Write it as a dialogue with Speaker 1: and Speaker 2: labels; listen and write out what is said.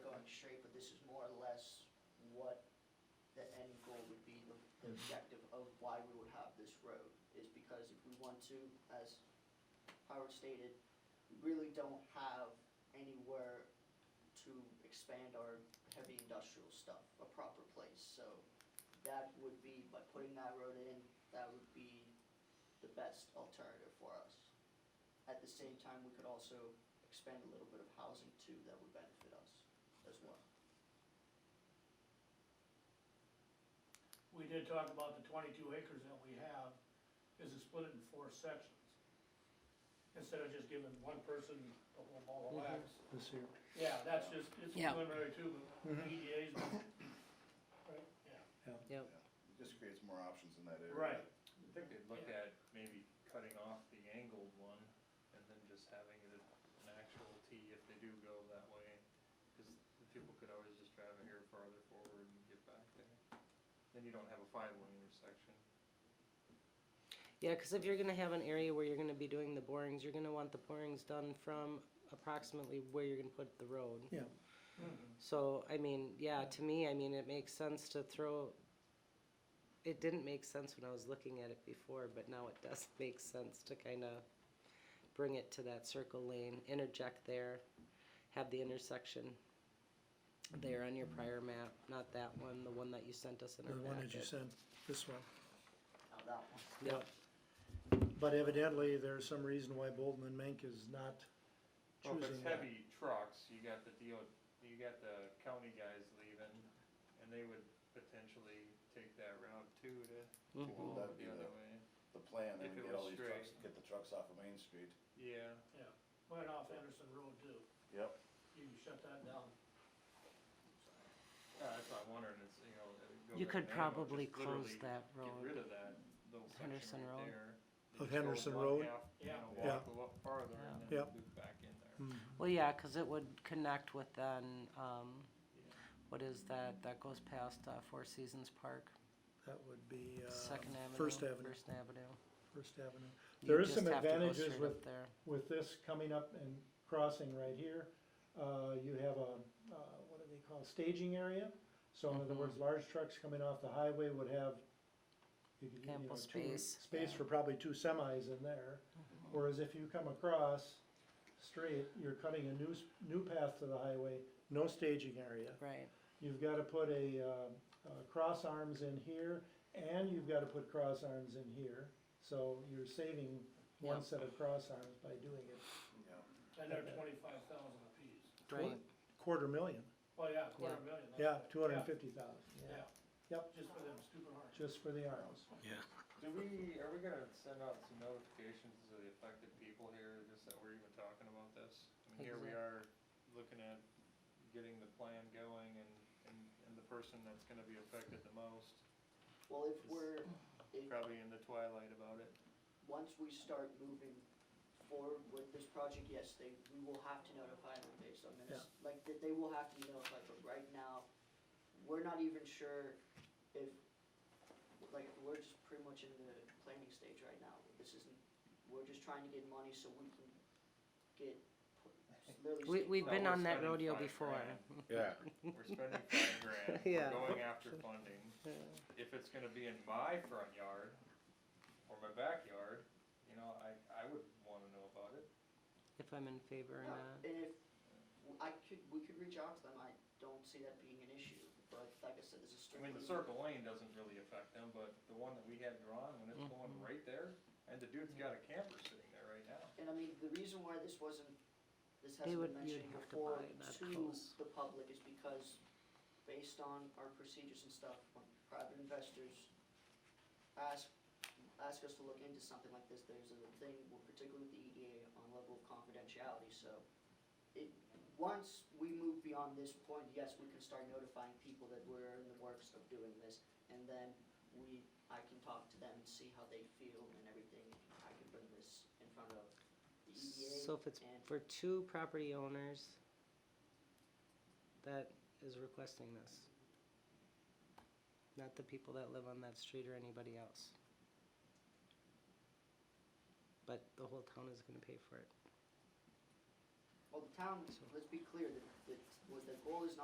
Speaker 1: the end goal would be the, the objective of why we would have this road, is because if we want to, as Howard stated, we really don't have anywhere to expand our heavy industrial stuff, a proper place, so that would be, by putting that road in, that would be the best alternative for us. At the same time, we could also expand a little bit of housing too, that would benefit us as well.
Speaker 2: We did talk about the twenty-two acres that we have, is to split it in four sections. Instead of just giving one person the whole ball of wax.
Speaker 3: This here.
Speaker 2: Yeah, that's just, it's
Speaker 4: Yeah.
Speaker 2: preliminary too, but
Speaker 3: Mhm.
Speaker 2: EDA's, right, yeah.
Speaker 4: Yep,
Speaker 5: Just creates more options in that area.
Speaker 2: Right.
Speaker 6: I think they'd look at maybe cutting off the angled one and then just having it an actual T if they do go that way. Cause the people could always just drive it here farther forward and get back there. Then you don't have a five lane intersection.
Speaker 4: yeah, because if you're gonna have an area where you're gonna be doing the borings, you're gonna want the borings done from approximately where you're gonna put the road.
Speaker 3: Yeah,
Speaker 6: Mm-hmm.
Speaker 4: So, I mean, yeah, to me, I mean, it makes sense to throw, it didn't make sense when I was looking at it before, but now it does make sense to kind of bring it to that circle lane, interject there, have the intersection there on your prior map, not that one, the one that you sent us in
Speaker 3: the
Speaker 4: our
Speaker 3: one that you
Speaker 4: packet.
Speaker 3: sent, this one.
Speaker 1: Now that one,
Speaker 4: Yep,
Speaker 3: But evidently, there's some reason why Bolton and Mink is not
Speaker 6: Well, Oh, if it's
Speaker 3: choosing that.
Speaker 6: heavy trucks, you got the deal, you got the county guys leaving and they would potentially take that route too to, to
Speaker 4: Mhm.
Speaker 6: go
Speaker 5: That'd
Speaker 6: over
Speaker 5: be
Speaker 6: the other
Speaker 5: the-
Speaker 6: way.
Speaker 5: The plan,
Speaker 6: If
Speaker 5: then we
Speaker 6: it
Speaker 5: get all
Speaker 6: was
Speaker 5: these trucks,
Speaker 6: straight.
Speaker 5: get the trucks off of Main Street.
Speaker 6: Yeah.
Speaker 2: Yeah, right off Anderson Road too,
Speaker 5: Yep.
Speaker 2: you can shut that down.
Speaker 6: Yeah, Uh, that's what I'm wondering, it's, you know. it would go
Speaker 4: You
Speaker 6: back
Speaker 4: could
Speaker 6: to Hannibal,
Speaker 4: probably
Speaker 6: just literally
Speaker 4: close that road.
Speaker 6: Get rid of that little
Speaker 4: Henderson
Speaker 6: section right
Speaker 4: Road.
Speaker 6: there.
Speaker 3: Of
Speaker 6: Just go
Speaker 3: Oh, Henderson
Speaker 6: one
Speaker 3: Road?
Speaker 6: half, You
Speaker 2: Yeah.
Speaker 6: know,
Speaker 5: Yeah.
Speaker 6: walk a lot farther and
Speaker 3: Yeah.
Speaker 6: then loop back in there.
Speaker 3: Mm.
Speaker 4: well, yeah, because it would connect with then, um,
Speaker 6: Yeah.
Speaker 4: what is that, that goes past uh, Four Seasons Park,
Speaker 3: That would be, uh,
Speaker 4: Second Avenue?
Speaker 3: First Avenue,
Speaker 4: First Avenue.
Speaker 3: First Avenue.
Speaker 4: You
Speaker 3: There is some
Speaker 4: just have to go
Speaker 3: advantages
Speaker 4: straight up
Speaker 3: with,
Speaker 4: there.
Speaker 3: with this coming up and crossing right here. Uh, you have a, uh, what do they call, staging area? So
Speaker 4: Mm-hmm.
Speaker 3: in other words, large trucks coming off the highway would have, you could, you know,
Speaker 4: Ample
Speaker 3: two-
Speaker 4: space. Mm-hmm.
Speaker 3: Space for probably two semis in there. Whereas if you come across straight, you're cutting a new, s- new path to the highway, no staging area.
Speaker 4: Right,
Speaker 3: You've gotta put a, uh, uh, cross arms in here, and you've gotta put cross arms in here. So you're saving one
Speaker 4: Yep.
Speaker 3: set of cross arms by doing it.
Speaker 5: Yeah.
Speaker 2: And they're twenty-five thousand apiece.
Speaker 4: right.
Speaker 3: Quarter million,
Speaker 2: Oh, yeah, quarter
Speaker 4: Yeah.
Speaker 2: million. that's
Speaker 3: yeah,
Speaker 2: right.
Speaker 3: two hundred and fifty thousand, yeah,
Speaker 2: Yeah,
Speaker 3: yep,
Speaker 2: just for them stupid hearts.
Speaker 3: just for the arms.
Speaker 6: Do we, are we gonna send out some notifications to the affected people here, just that we're even talking about this? I mean, here we
Speaker 4: Exact-
Speaker 6: are, looking at getting the plan going and, and, and the person that's gonna be affected the most,
Speaker 1: well, if we're, if,
Speaker 6: probably in the twilight about it.
Speaker 1: once we start moving forward with this project, yes, they, we will have to notify them based on this. Like, they, they will have to be notified, but right now, we're not even sure if, like, we're just pretty much in the planning stage right now. This isn't, we're just trying to get money so we can get, literally.
Speaker 4: We,
Speaker 1: state
Speaker 4: we've
Speaker 6: No,
Speaker 4: been
Speaker 6: we're
Speaker 4: on that
Speaker 6: spending
Speaker 4: rodeo
Speaker 6: five
Speaker 4: before.
Speaker 6: grand.
Speaker 5: Yeah.
Speaker 6: We're spending five grand,
Speaker 4: Yeah.
Speaker 6: we're going after funding.
Speaker 4: Yeah.
Speaker 6: If it's gonna be in my front yard or my backyard, you know, I, I would wanna know about it.
Speaker 4: If I'm in favor or
Speaker 1: No,
Speaker 4: not.
Speaker 1: And if, I could, we could reach out to them, I don't see that being an issue, but like I said, this is
Speaker 6: I
Speaker 1: strictly.
Speaker 6: mean, the circle lane doesn't really affect them, but the one that we had drawn, when it's
Speaker 4: Mm-hmm.
Speaker 6: going right there, and the dude's got a camper sitting there right now.
Speaker 1: And I mean, the reason why this wasn't, this
Speaker 4: They
Speaker 1: hasn't
Speaker 4: would-
Speaker 1: been
Speaker 4: you'd
Speaker 1: mentioned
Speaker 4: have to
Speaker 1: before
Speaker 4: buy that
Speaker 1: to
Speaker 4: close.
Speaker 1: the public is because based on our procedures and stuff, when private investors ask, ask us to look into something like this, there's a thing, well, particularly with the EDA, on level of confidentiality, so it, once we move beyond this point, yes, we can start notifying people that we're in the works of doing this, and then we, I can talk to them and see how they feel and everything, I can bring this in front of the EDA.
Speaker 4: So if it's
Speaker 1: and-
Speaker 4: for two property owners that is requesting this. Not the people that live on that street or anybody else. But the whole town is gonna pay for it.
Speaker 1: Well, the town, let's be clear, that, that, was the goal is not